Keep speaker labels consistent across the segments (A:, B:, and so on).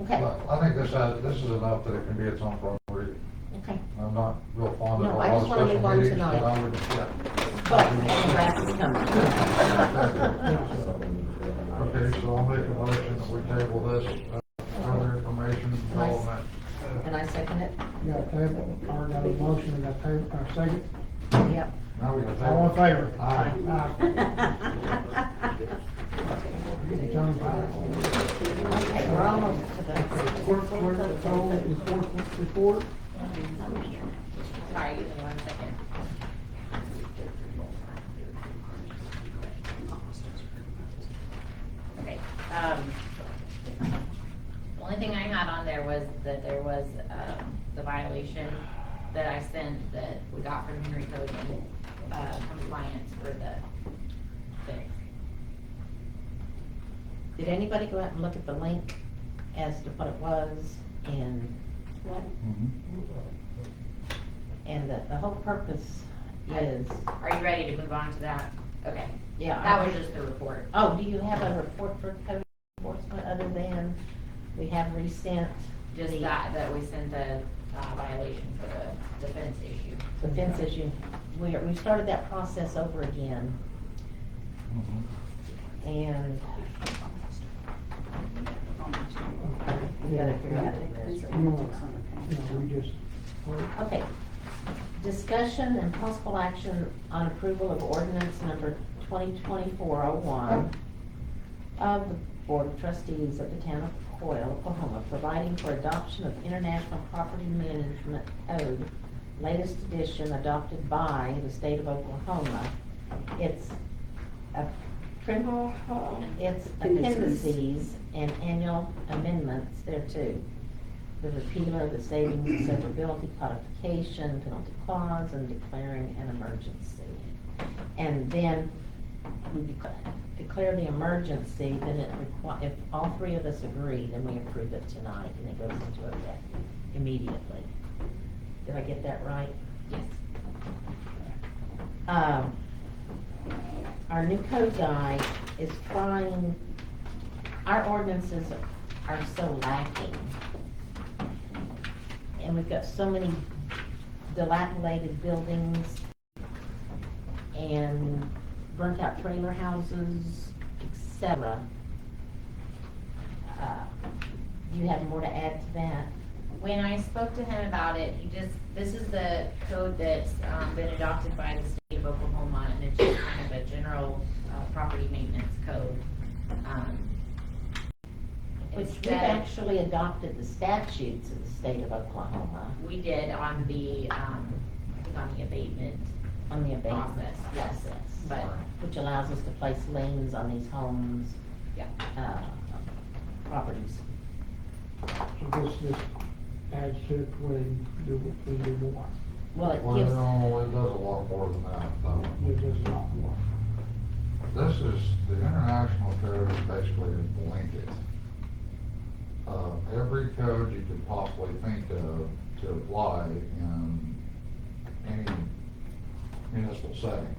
A: Okay,
B: But I think this, has- this is enough that it can be its own form of reading.
A: okay.
B: I'm not real fond of
A: No,
B: a
A: I
B: lot of
A: just wanna move
B: special
A: on
B: meetings,
A: tonight.
B: but I would, yeah.
A: But the grass is coming.
B: Okay, so I'll make a motion that we table this, uh, further information, development.
A: And I second it.
C: We got a table, or got a motion, we got a table, or a second.
A: Yep.
B: Now we got table.
C: All in favor?
B: Aye.
C: Aye.
A: Okay, we're almost to the.
C: Clerk, clerk, the poll is four, report.
A: Sorry, give me one second.
D: Okay, um, the only thing I had on there was that there was, um, the violation that I sent that we got from Henry Cogan, uh, compliance for the thing.
A: Did anybody go out and look at the link as to what it was and,
B: Mhm.
A: and the, the whole purpose is,
D: Are you ready to move on to that? Okay,
A: yeah.
D: that was just the report.
A: Oh, do you have a report for code enforcement other than we have resent
D: Just
A: the-
D: that, that we sent the uh, violation for the defense issue.
A: the fence issue? We, we started that process over again
B: Mhm.
A: and we gotta figure out the rest.
C: No, no, we just,
A: Okay. Discussion and possible action on approval of ordinance number 2024-01 of the Board of Trustees of the Town of Coyle, Oklahoma, providing for adoption of International Property Management Code, latest edition adopted by the state of Oklahoma. It's a criminal, it's appendices and annual amendments thereto the repealer, the savings, and severability codification, penalty clause, and declaring an emergency. And then we dec- declare the emergency, then it requi, if all three of us agree, then we approve it tonight, and it goes into effect immediately. Did I get that right?
D: Yes.
A: Um, our new code guy is trying, our ordinances are so lacking. And we've got so many dilapidated buildings and burnt out trailer houses, et cetera. Uh, You have more to add to that?
D: When I spoke to him about it, he just, this is the code that's um, been adopted by the state of Oklahoma, and it's just kind of a general uh, property maintenance code. Um,
A: Which we've
D: instead-
A: actually adopted the statutes of the state of Oklahoma
D: We did on the, um, I think on the abatement,
A: on the abatement
D: Process, yes.
A: process.
D: but,
A: which allows us to place liens on these homes,
D: yeah.
A: uh, properties.
C: so this, this adds to it when do, when do more.
A: Well, it gives,
B: Well, it does a lot more than that, though.
C: It does not more.
B: This is, the international code is basically a blanket. Uh, every code you could possibly think of to apply in any municipal setting.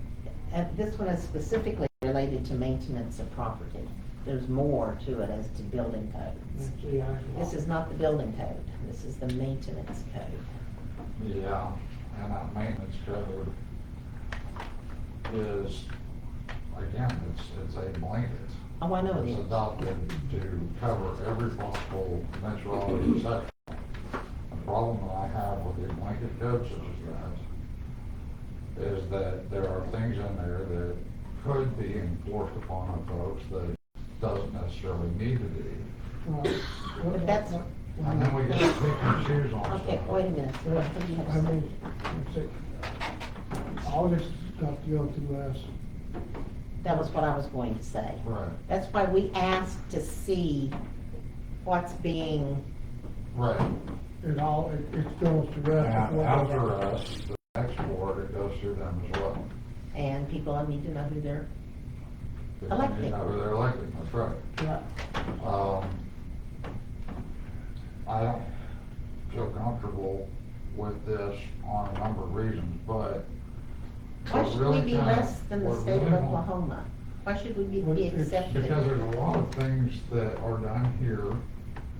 A: uh, this one is specifically related to maintenance of property. There's more to it as to building codes.
C: That's the actual-
A: This is not the building code, this is the maintenance code.
B: Yeah. And that maintenance code is, again, it's, it's a blanket.
A: Oh, I know it
B: It's
A: is.
B: adopted to cover every possible eventuality section. The problem that I have with the blanket code such as that is that there are things in there that could be enforced upon our folks that it doesn't necessarily need to be.
C: Right.
A: But that's-
B: And then we get to pick and choose on
A: Okay,
B: stuff.
A: wait a minute.
C: Well,
A: What did you have to
C: I
A: say?
C: mean, it's a- all this stuff to go through us,
A: That was what I was going to say.
B: Right,
A: That's why we asked to see what's being,
B: right.
C: it all, it, it goes to us.
B: And after us, the next board, it goes through them as well.
A: and people, I need to know who they're,
B: They don't
A: Elected.
B: even know who they're elected, that's right.
C: Right.
B: Um, I don't feel comfortable with this on a number of reasons, but.
A: why should we be
B: Really
A: less than the
B: kinda-
A: state of
B: we're-
A: Oklahoma? Why should we be-
C: Well,
A: be
C: it's
A: accepted?
B: Because there's a lot of things that are done here